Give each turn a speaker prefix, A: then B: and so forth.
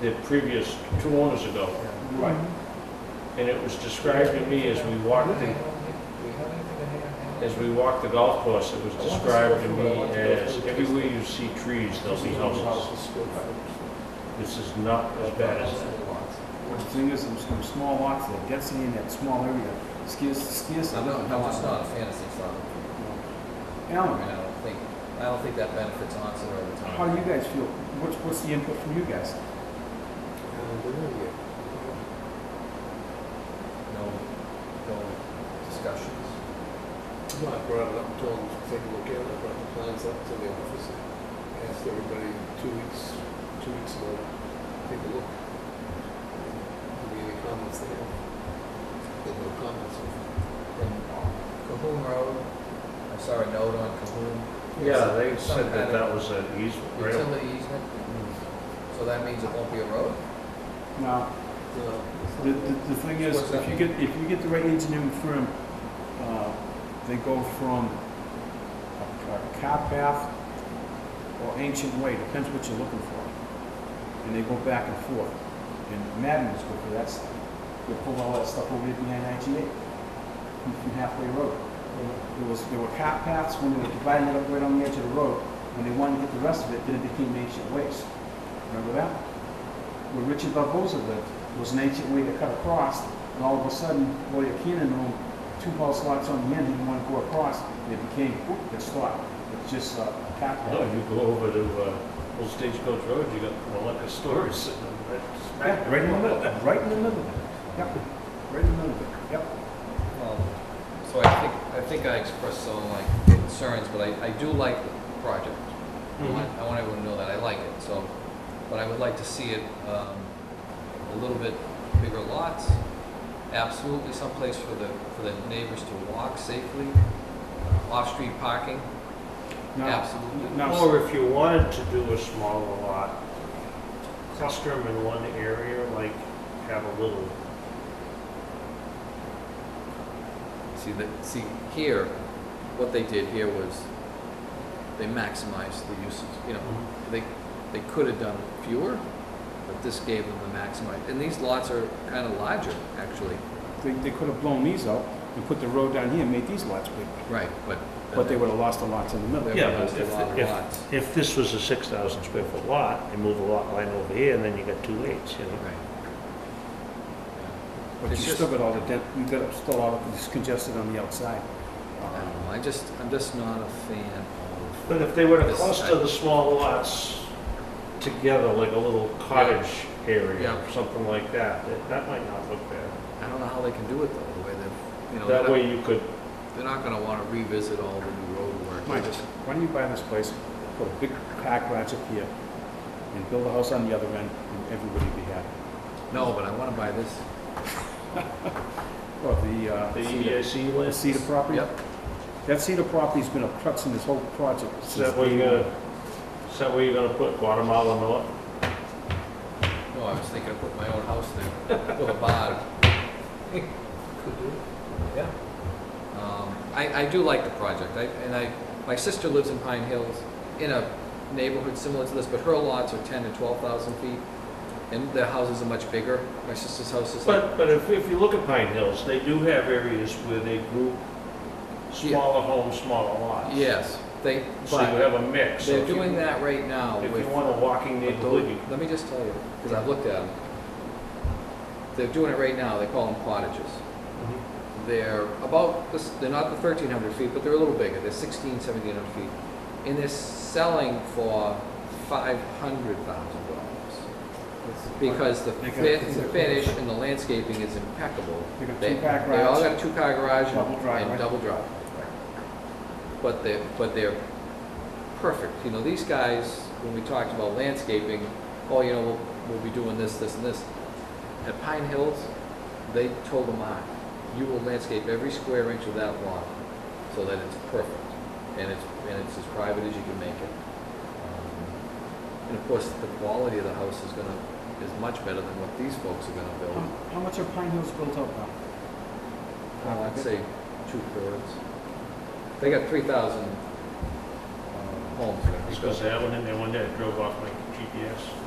A: the previous two owners ago.
B: Right.
A: And it was described to me as we walked the, as we walked the golf course, it was described to me as everywhere you see trees, there'll be houses. This is not as bad as that.
B: Well, the thing is, in some small lots, the density in that small area scares, scares
C: No,
B: them.
C: no, no, it's not a fantasy farm. I mean,
B: Alan,
C: I don't think, I don't think that benefits Onset or the
B: how do
C: town.
B: you guys feel? What's, what's the input from you guys?
C: No, no discussions.
D: No, I brought it up, and told them to take a look at it, I brought the plans up to the office, asked everybody two weeks, two weeks ago, take a look. Give me any comments they have. They have no comments.
C: And Cahoon Road, I saw a note on Cahoon.
A: Yeah, they
C: Some
A: said that
C: kind
A: that was an easement,
C: of
A: right?
C: Utility easement, so that means it won't be a road?
B: Now,
D: No, it's
B: The,
D: not-
B: the, the thing is,
C: What's
B: if
C: that?
B: you get, if you get the right engineering firm, uh, they go from a, a car path or ancient way, depends what you're looking for. And they go back and forth. And Madden was good for that stuff. They pulled all that stuff over here behind IGA from from halfway road. There was, there were car paths when they were dividing it up right on the edge of the road. When they wanted to get the rest of it, then it became ancient ways. Remember that? Where Richard Barbosa lived was an ancient way to cut across, and all of a sudden, Lawyer Keenan owned two house lots on the end, he didn't want to go across, and it became, whoop, it's lot. It's just uh, a path.
A: No, you go over to, uh, Old Stagecoach Road, you got, well, like a store sitting right smack
B: Yeah, right in the middle, right in the middle of it. Yep, right in the middle of it, yep.
C: Well, So I think, I think I expressed some like concerns, but I, I do like the project. I want, I want everyone to know that I like it, so, but I would like to see it, um, a little bit bigger lots. Absolutely someplace for the, for the neighbors to walk safely, uh, off-street parking,
B: Now,
C: absolutely.
B: now,
A: Or if you wanted to do a smaller lot, cluster them in one area, like have a little,
C: See, the, see, here, what they did here was, they maximized the uses, you know, they, they could have done fewer, but this gave them the maximize, and these lots are kind of larger, actually,
B: they, they could have blown these out and put the road down here and made these lots big,
C: right, but.
B: but they would have lost the lots in the middle.
C: They
A: Yeah,
C: would've
A: but
C: lost a
A: if-
C: lot of
A: if-
C: lots.
A: if this was a six thousand square foot lot, and move a lot line over here, and then you got two eights, you know?
C: Right.
B: But you
C: It's
B: still
C: just-
B: got all the, dent- you got still all of this congested on the outside.
C: I don't know, I just, I'm just not a fan of,
A: But if they were to
C: This-
A: cluster the small lots together, like a little cottage area,
C: Yeah.
A: or something like that, that, that might not look bad.
C: I don't know how they can do it though, the way they've, you know,
A: That
C: they're not,
A: way you could,
C: they're not gonna wanna revisit all the new road work.
B: Mike, why don't you buy this place, put a big car garage up here, and build a house on the other end, and everybody would be happy.
C: No, but I wanna buy this,
B: Well, the,
A: the
B: uh, Cedar-
A: EAC
B: the
A: list,
B: Cedar property,
C: yep,
B: that Cedar property's been a crux in this whole project.
A: is
B: since
A: that where
B: day
A: you're
B: one.
A: gonna, is that where you're gonna put Guatemala North?
C: no, I was thinking of putting my own house there, with a barn.
D: Could do.
C: Yeah. Um, I, I do like the project, I, and I, my sister lives in Pine Hills, in a neighborhood similar to this, but her lots are ten to twelve thousand feet, and their houses are much bigger, my sister's house is like,
A: But, but if, if you look at Pine Hills, they do have areas where they group smaller homes, smaller lots.
C: yes, they,
A: So you
C: but
A: have a mix. So
C: they're
A: if you-
C: doing that right now
A: If
C: with.
A: you want a walking
C: But
A: neighborhood,
C: tho-
A: you,
C: Let me just tell you, because I've looked at them. They're doing it right now, they call them cottages. They're about, this- they're not the thirteen hundred feet, but they're a little bigger, they're sixteen, seventeen hundred feet. And they're selling for five hundred thousand dollars. Because the
B: They got-
C: fit, the finish and the landscaping is impeccable.
B: They got
C: They,
B: two back
C: they all
B: roads.
C: got a two-car garage and-
B: Double driveway.
C: and double drive. But they, but they're perfect, you know, these guys, when we talked about landscaping, oh, you know, we'll, we'll be doing this, this, and this. At Pine Hills, they told them, "Ah, you will landscape every square inch of that lot so that it's perfect, and it's, and it's as private as you can make it. Um, And of course, the quality of the house is gonna, is much better than what these folks are gonna build.
B: How- How much are Pine Hills built up now?
C: I would Uh, say two thirds. They got three thousand homes there.
A: because I went in there one day, I drove off my GPS.